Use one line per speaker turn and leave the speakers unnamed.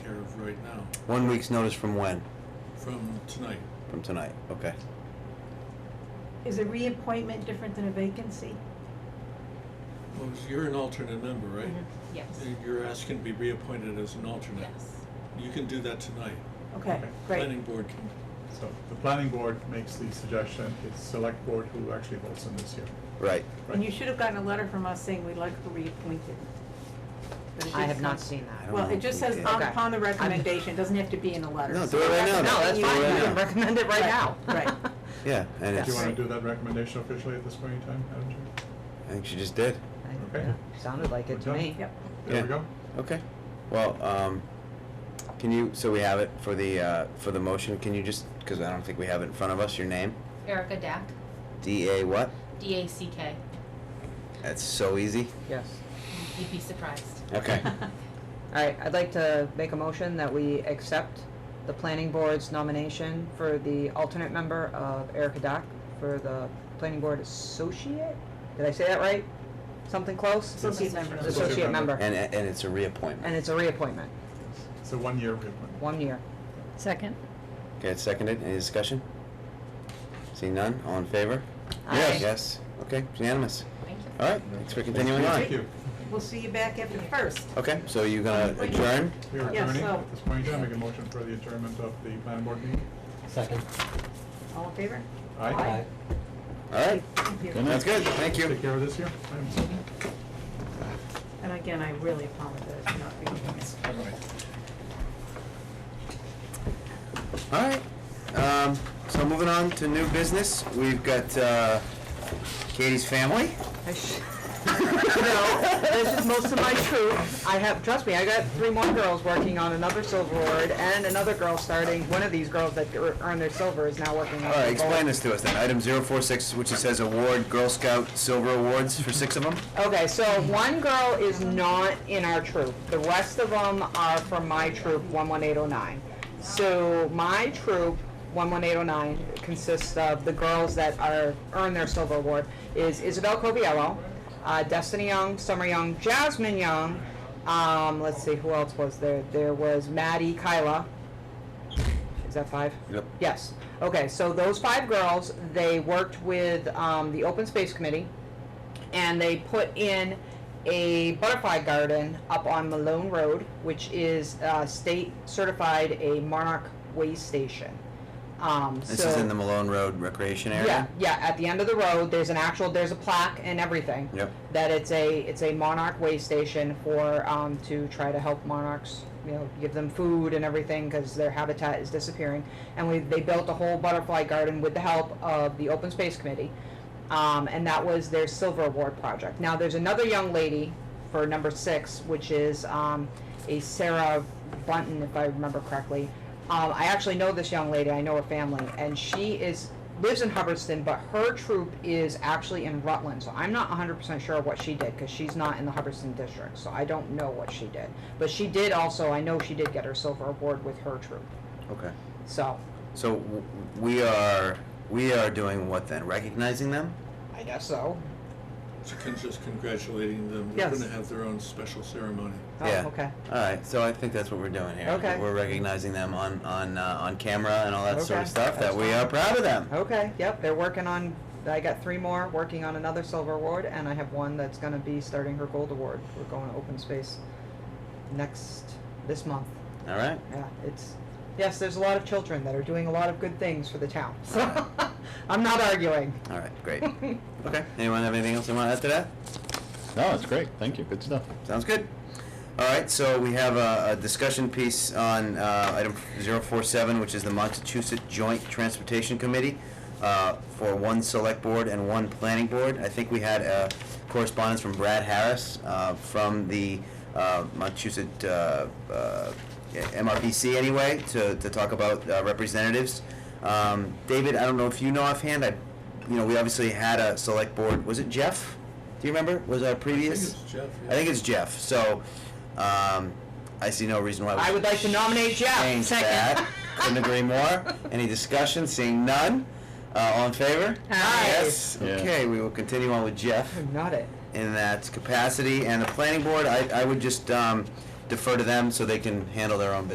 right now,
One week's notice from when?
from tonight.
From tonight, okay.
Is a reappointment different than a vacancy?
Well, you're an alternate member, right?
Yes.
And You're asking to be reappointed as an alternate.
Mm-hmm. Yes.
You can do that tonight.
Okay,
Okay.
Planning
great.
board can,
So the planning board makes the suggestion, it's select board who actually votes on this here.
Right.
And you should have gotten a letter from us saying we'd like to reappoint you. But it
I
didn't
have not
come.
seen
I
that.
don't
Well,
know
it just
if we
says
did.
on-
Okay.
upon the
I'm-
recommendation, It doesn't have to be in a letter.
No, do it right now.
No, that's
Do it
fine,
right
I can
now.
recommend it right
Right,
now.
right.
Yeah, and
Yes.
Do
it's,
you want
I
to do that recommendation officially at this point in time, Madam Chair?
think she just did.
I-
Okay.
yeah, Sounded like it to
We're done.
me.
Yep.
There
Yeah.
we go.
Okay. Well, um, can you, so we have it for the, uh, for the motion, can you just, because I don't think we have it in front of us, your name?
Erica Dack,
D-A what?
D A C K.
That's so easy.
Yes.
You'd be surprised.
Okay.
All right, I'd like to make a motion that we accept the planning board's nomination for the alternate member of Erica Dock for the planning board associate? Did I say that right? Something close?
Associate member.
Associate member.
And, and it's a reappointment.
And it's a reappointment,
It's a one-year reappointment.
one year.
Second.
Okay, it's seconded. Any discussion? Seeing none, all in favor?
Aye.
Yes, okay, unanimous.
Thank you.
All right, thanks for continuing on.
Thank you.
We'll see you back after the first.
Okay, so you're gonna adjourn?
We are
Yes,
adjourning
so-
at this point in time. Make a motion for the adjournment of the planning board meeting.
Second.
All in favor?
Aye.
All right,
Thank you.
Good night.
that's good, thank you.
Take care of this here. Item
And again, I really apologize for not being here.
All right.
All right, um, so moving on to new business, we've got, uh, Katie's family.
I sh- No, this is most of my truth. I have, trust me, I got three more girls working on another silver award and another girl starting, one of these girls that ear- earned their silver is now working on.
All right,
the gold.
explain this to us then, item zero four six, which it says award Girl Scout Silver Awards for six of them?
Okay, so one girl is not in our troop. The rest of them are from my troop, 11809. So my troop, 11809, consists of the girls that are earn their silver award is Isabel Coviello, uh, Destiny Young, Summer Young, Jasmine Young. Um, let's see, who else was there? There was Maddie Kyla. Is that five?
Yep.
Yes. Okay, so those five girls, they worked with um, the Open Space Committee and they put in a butterfly garden up on Malone Road, which is uh, state certified a monarch way station. Um,
This
so
is in the Malone Road Recreation
yeah,
Area?
yeah. At the end of the road, there's an actual there's a plaque and everything.
Yep.
That it's a it's a monarch way station for um, to try to help monarchs, you know, give them food and everything because their habitat is disappearing. And we they built a whole butterfly garden with the help of the Open Space Committee, um, and that was their silver award project. Now there's another young lady for number six, which is um, a Sarah Bunton, if I remember correctly. Um, I actually know this young lady. I know her family, and she is lives in Hubbardston, but her troop is actually in Rutland. So I'm not 100% sure what she did because she's not in the Hubbardston district. So I don't know what she did. But she did also, I know she did get her silver award with her troop.
Okay.
So
So w- we are, we are doing what then? Recognizing them?
I guess so.
so can- just congratulating them.
Yes.
They're gonna have their own special ceremony.
Oh,
Yeah.
okay.
All right, so I think that's what we're doing here.
Okay.
We're recognizing them on, on, uh, on camera and all that sort of
Okay,
stuff, that
that's
we
fine.
are proud of them.
Okay. Yep. They're working on, I got three more working on another silver award, and I have one that's going to be starting her gold award. We're going to open space next, this month.
All right,
Yeah, it's, yes, there's a lot of children that are doing a lot of good things for the town. So I'm not arguing.
all right, great. Okay, anyone have anything else they want to add to that?
No, it's great. Thank you. Good stuff.
Sounds good. All right, so we have a, a discussion piece on, uh, item zero four seven, which is the Montachusett Joint Transportation Committee, uh, for one select board and one planning board. I think we had, uh, correspondence from Brad Harris, uh, from the, uh, Montachusett, uh, uh, MRPC anyway, to, to talk about, uh, representatives. Um, David, I don't know if you know offhand, I, you know, we obviously had a select board, was it Jeff? Do you remember? Was our
I
previous?
think it's Jeff. yeah.
I think it's Jeff. So, um, I see no reason why we
I would like to nominate Jeff.
change
Second.
that. Couldn't agree more. Any discussion? Seeing none. Uh, all in favor?
Aye.
Yes.
Yeah.
Okay, we will continue on with Jeff
Not it.
in that capacity. And the planning board, I, I would just um, defer to them so they can handle their own business.